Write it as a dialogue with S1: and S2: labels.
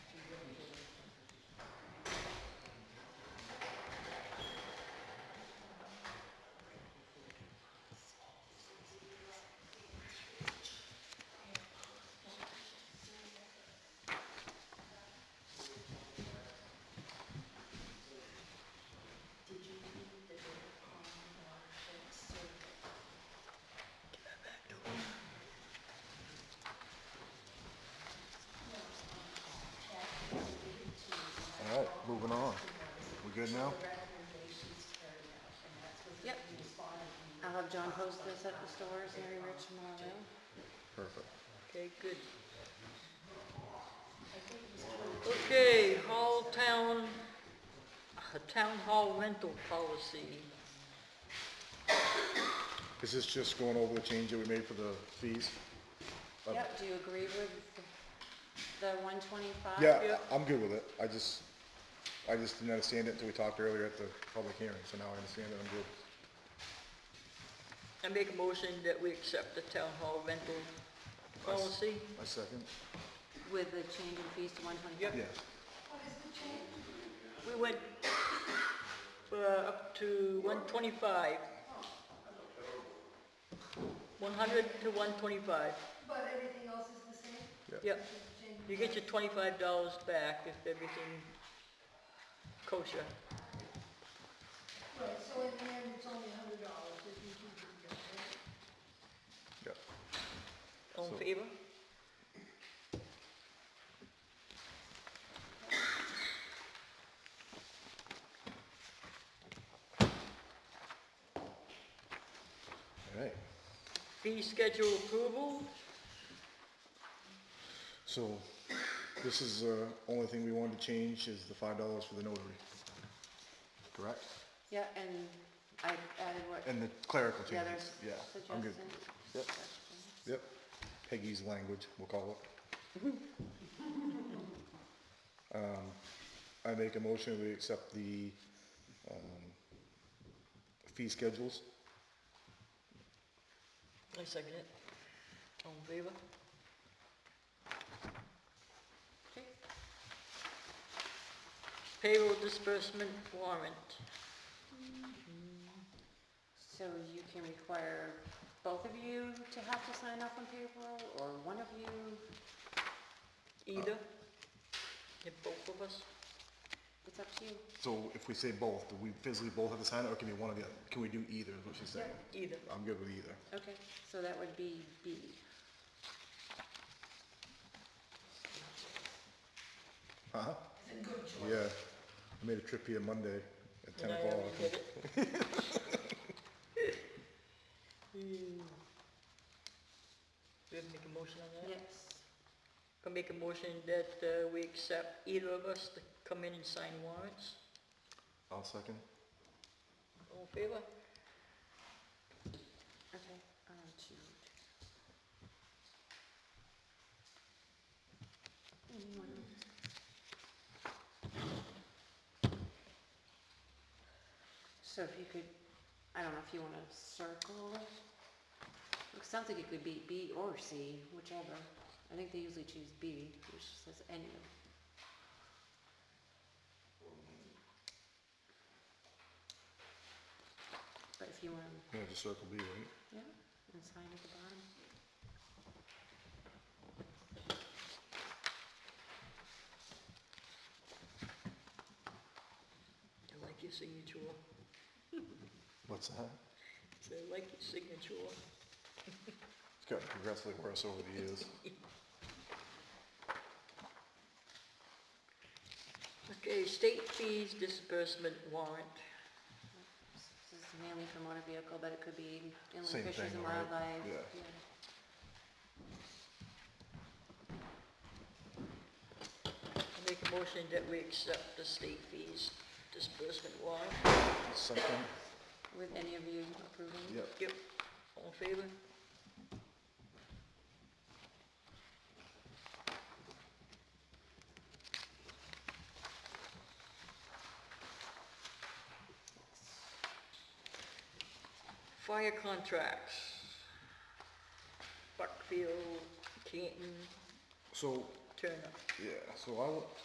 S1: All right, moving on. We good now?
S2: Yep. I'll have John post this at the stores and everywhere tomorrow.
S1: Perfect.
S3: Okay, good. Okay, hall town, uh, town hall rental policy.
S1: Is this just going over the change that we made for the fees? Uh,
S2: Yep, do you agree with the one twenty-five?
S1: Yeah,
S3: Yep.
S1: I'm good with it. I just, I just didn't understand it until we talked earlier at the public hearing, so now I understand it. I'm good.
S3: I make a motion that we accept the town hall rental policy.
S1: My second?
S2: With the change in fees to one twenty-five?
S1: Yes.
S3: We went, uh, up to one twenty-five. One hundred to one twenty-five,
S4: But everything else is the same?
S3: yep. You get your twenty-five dollars back if everything kosher.
S4: Right, so in the end, it's only a hundred dollars if you keep it together. right?
S1: Yeah.
S3: All in
S1: So-
S3: favor?
S1: All right.
S3: Fee schedule approval?
S1: So this is the only thing we wanted to change is the five dollars for the notary. Correct?
S2: Yeah, and I added what
S1: And the clerical
S2: the others
S1: changes. Yeah, I'm
S2: suggested.
S1: good. Yep. Yep. Peggy's language, we'll call it. Um, I make a motion, we accept the, um, fee schedules.
S3: I second it. All in favor?
S2: Okay.
S3: Payroll disbursement warrant.
S2: So you can require both of you to have to sign off on payroll, or one of you?
S3: Either? Get both of us?
S2: It's up to you.
S1: So if we say both, do we physically both have to sign it, or can we one or the other? Can we do either, is what she's saying?
S3: Either.
S1: I'm good with either.
S2: Okay, so that would be B.
S1: Huh? Uh-huh. Yeah, I made a trip here Monday at ten
S3: And I
S1: o'clock.
S3: already did it. Hmm. We have to make a motion on that?
S2: Yes.
S3: Can make a motion that uh, we accept either of us to come in and sign warrants?
S1: I'll second.
S3: All in favor?
S2: Okay, um, two. So if you could, I don't know if you wanna circle it? It sounds like it could be B or C, whichever. I think they usually choose B, which says any of. But if you wanna
S1: Yeah, just circle B, right?
S2: yeah, and sign at the bottom.
S3: I like your signature.
S1: What's that?
S3: I like your signature.
S1: It's gotten progressively worse over the years.
S3: Okay, state fees disbursement warrant.
S2: This is mainly for motor vehicle, but it could be
S1: Same
S2: inland fisheries
S1: thing,
S2: and
S1: right?
S2: wildlife.
S1: Yeah.
S3: I make a motion that we accept the state fees disbursement warrant.
S1: Second,
S2: With any of you approving?
S1: yep.
S3: Yep. All in favor? Fire contracts. Buckfield, Canton,
S1: So,
S3: Turner.
S1: yeah, so I, wa-